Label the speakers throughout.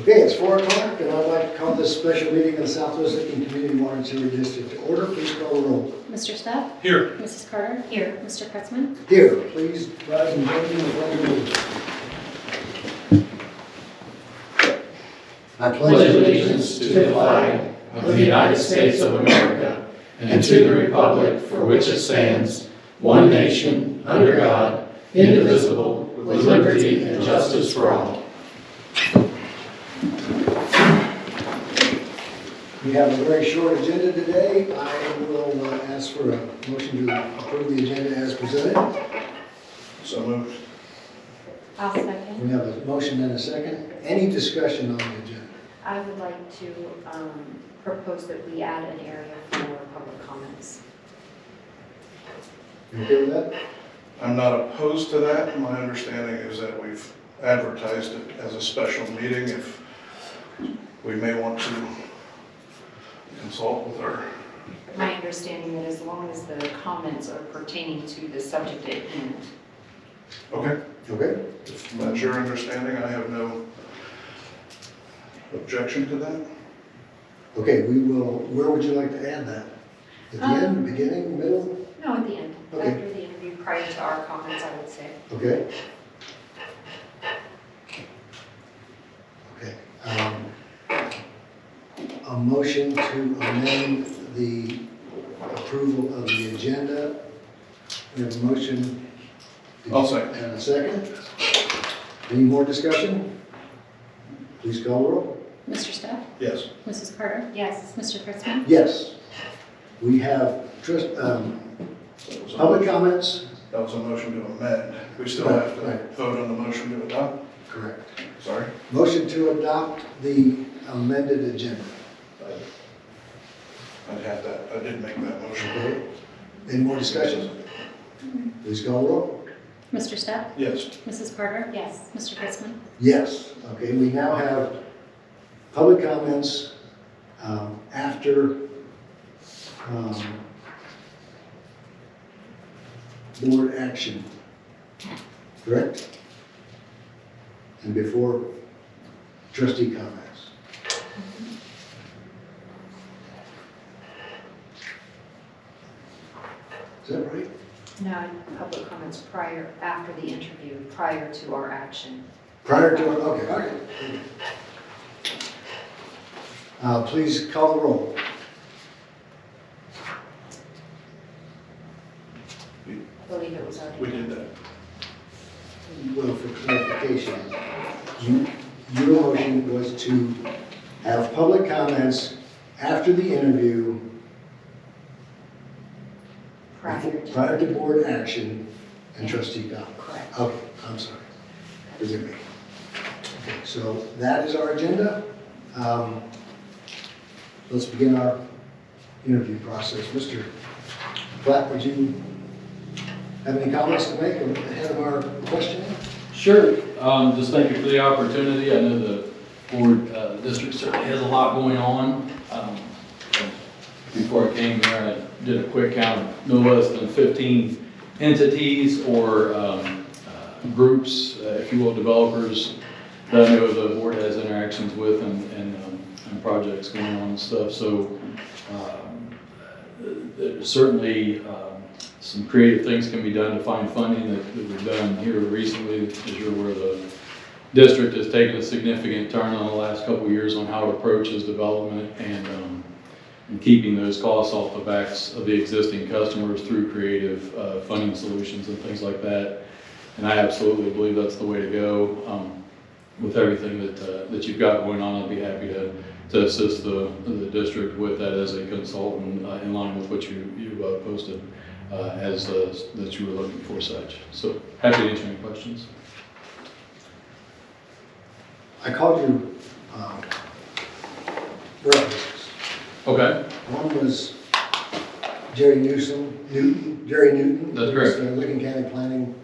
Speaker 1: Okay, it's four o'clock, and I'd like to call this special meeting of the Southwest Lincoln Community Water and Sewer District to order. Please call the roll.
Speaker 2: Mr. Steph?
Speaker 3: Here.
Speaker 2: Mrs. Carter? Here. Mr. Kretzmann?
Speaker 1: Here, please rise and join me in the pledge of allegiance. I
Speaker 4: pledge allegiance to the flag of the United States of America and to the republic for which it stands, one nation, under God, indivisible, with liberty and justice for all.
Speaker 1: We have a very short agenda today. I will uh, ask for a motion to approve the agenda as presented.
Speaker 3: So moved.
Speaker 5: I'll second.
Speaker 1: We have a motion and a second. Any discussion on the agenda?
Speaker 5: I would like to um, propose that we add an area for public comments.
Speaker 1: You okay with that?
Speaker 3: I'm not opposed to that. My understanding is that we've advertised it as a special meeting if we may want to consult with our,
Speaker 5: My understanding that as long as the comments are pertaining to the subject at hand.
Speaker 3: okay?
Speaker 1: Okay.
Speaker 3: If that's your understanding, I have no objection to that.
Speaker 1: Okay, we will, where would you like to add that? At the end,
Speaker 5: Um,
Speaker 1: beginning, middle?
Speaker 5: No, at the end,
Speaker 1: Okay.
Speaker 5: after the interview, prior to our comments, I would say.
Speaker 1: Okay. Okay. um, A motion to amend the approval of the agenda. We have a motion.
Speaker 3: I'll second.
Speaker 1: And a second. Any more discussion? Please call the roll.
Speaker 2: Mr. Steph?
Speaker 3: Yes.
Speaker 2: Mrs. Carter?
Speaker 5: Yes.
Speaker 2: Mr. Kretzmann?
Speaker 1: Yes. We have trust- um,
Speaker 3: That was a-
Speaker 1: public comments.
Speaker 3: That was a motion to amend. We still have
Speaker 1: Right,
Speaker 3: to
Speaker 1: right.
Speaker 3: vote on the motion to adopt.
Speaker 1: Correct.
Speaker 3: Sorry.
Speaker 1: Motion to adopt the amended agenda.
Speaker 3: I'd have that. I did make that motion.
Speaker 1: Okay. Any more discussion? Please call roll.
Speaker 2: Mr. Steph?
Speaker 3: Yes.
Speaker 2: Mrs. Carter?
Speaker 5: Yes.
Speaker 2: Mr. Kretzmann?
Speaker 1: Yes, okay, we now have public comments um, after um, board action, correct? And before trustee comments. Is that right?
Speaker 5: No, public comments prior, after the interview, prior to our action.
Speaker 1: Prior to, okay, all right. Uh, Please call the roll.
Speaker 5: I believe it was already.
Speaker 3: We did that.
Speaker 1: Well, for clarification, you- your motion was to have public comments after the interview,
Speaker 5: Prior to.
Speaker 1: prior to board action, and trustee comments.
Speaker 5: Correct.
Speaker 1: Okay, I'm sorry. Forgive me. Okay, so that is our agenda. Um, Let's begin our interview process. Mr. Platt, would you have any comments to make ahead of our questioning?
Speaker 4: Sure, um, just thank you for the opportunity. I know the board, uh, district certainly has a lot going on. Um, Before I came here, I did a quick count, of no less than fifteen entities or, um, uh, groups, uh, if you will, developers that I know the board has interactions with and, and, um, and projects going on and stuff, so, um, there's certainly, um, some creative things can be done to find funding that that we've done here recently, as you're aware, the district has taken a significant turn on the last couple of years on how it approaches development and, um, and keeping those costs off the backs of the existing customers through creative, uh, funding solutions and things like that. And I absolutely believe that's the way to go, um, with everything that, uh, that you've got going on. I'd be happy to, to assist the, the district with that as a consultant, uh, in line with what you, you uh, posted, uh, as, uh, that you were looking for such. So happy to answer any questions.
Speaker 1: I called you um, references.
Speaker 4: Okay.
Speaker 1: One was Jerry Newsom, Newton, Jerry Newton.
Speaker 4: That's correct.
Speaker 1: who's, uh, Licking County Planning.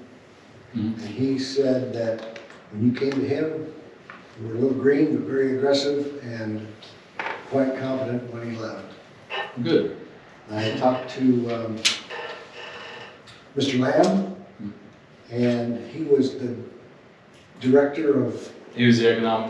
Speaker 1: And
Speaker 4: Mhm.
Speaker 1: he said that when you came to him, you were a little green, but very aggressive and quite confident when he left.
Speaker 4: Good.
Speaker 1: I talked to um, Mr. Lamb,
Speaker 4: Mm-hmm.
Speaker 1: and he was the director of
Speaker 4: He was the economic